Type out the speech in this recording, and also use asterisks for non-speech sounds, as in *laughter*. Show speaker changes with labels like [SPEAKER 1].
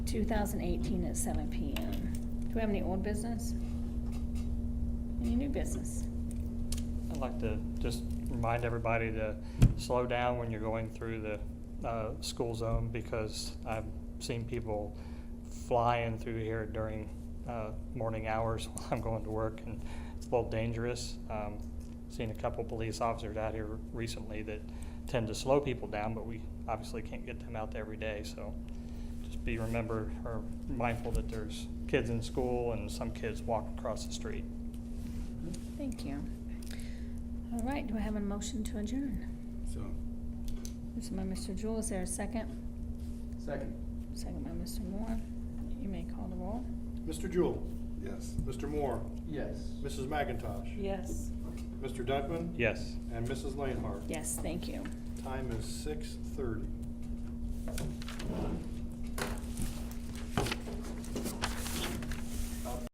[SPEAKER 1] 2018 at 7 PM. Do we have any old business? Any new business?
[SPEAKER 2] I'd like to just remind everybody to slow down when you're going through the uh, school zone because I've seen people flying through here during uh, morning hours *laughs* while I'm going to work and it's a little dangerous. Um, Seen a couple police officers out here recently that tend to slow people down, but we obviously can't get them out there every day, so just be remember or mindful that there's kids in school and some kids walk across the street.
[SPEAKER 1] Thank you. All right, do I have a motion to adjourn?
[SPEAKER 3] So.
[SPEAKER 1] This is by Mr. Jewell, is there a second?
[SPEAKER 3] Second.
[SPEAKER 1] Second by Mr. Moore. You may call the roll.
[SPEAKER 4] Mr. Jewell,
[SPEAKER 3] Yes.
[SPEAKER 4] Mr. Moore,
[SPEAKER 3] Yes.
[SPEAKER 4] Mrs. McIntosh.
[SPEAKER 1] Yes.
[SPEAKER 4] Mr. Duckman.
[SPEAKER 2] Yes.
[SPEAKER 4] And Mrs. Lainhart.
[SPEAKER 1] Yes, thank you.
[SPEAKER 4] Time is six thirty.